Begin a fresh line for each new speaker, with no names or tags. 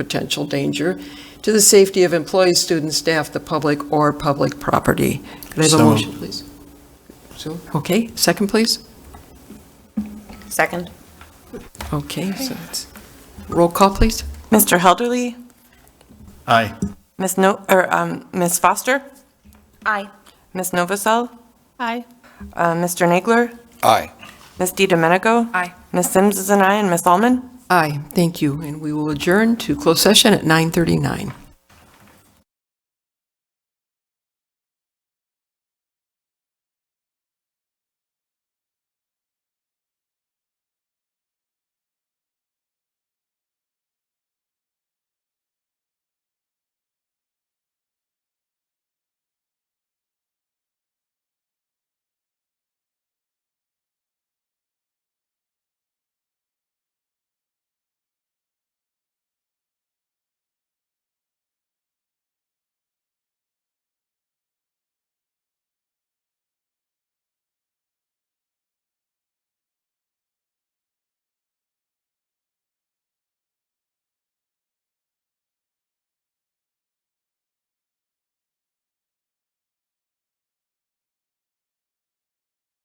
potential danger to the safety of employees, students, staff, the public, or public property. Could I have a
So moved.
motion, please? So, okay, second, please?
Second.
Okay, so it's, roll call, please?
Mr. Helderly,
Aye.
Ms. No, or, um, Ms. Foster? Aye. Ms. Novacell?
Aye.
Uh, Mr. Nagler?
Aye.
Ms. Di Domenico?
Aye.
Ms. Sims is an aye, and Ms. Almond?
Aye, thank you, and we will adjourn to closed session at 9:39.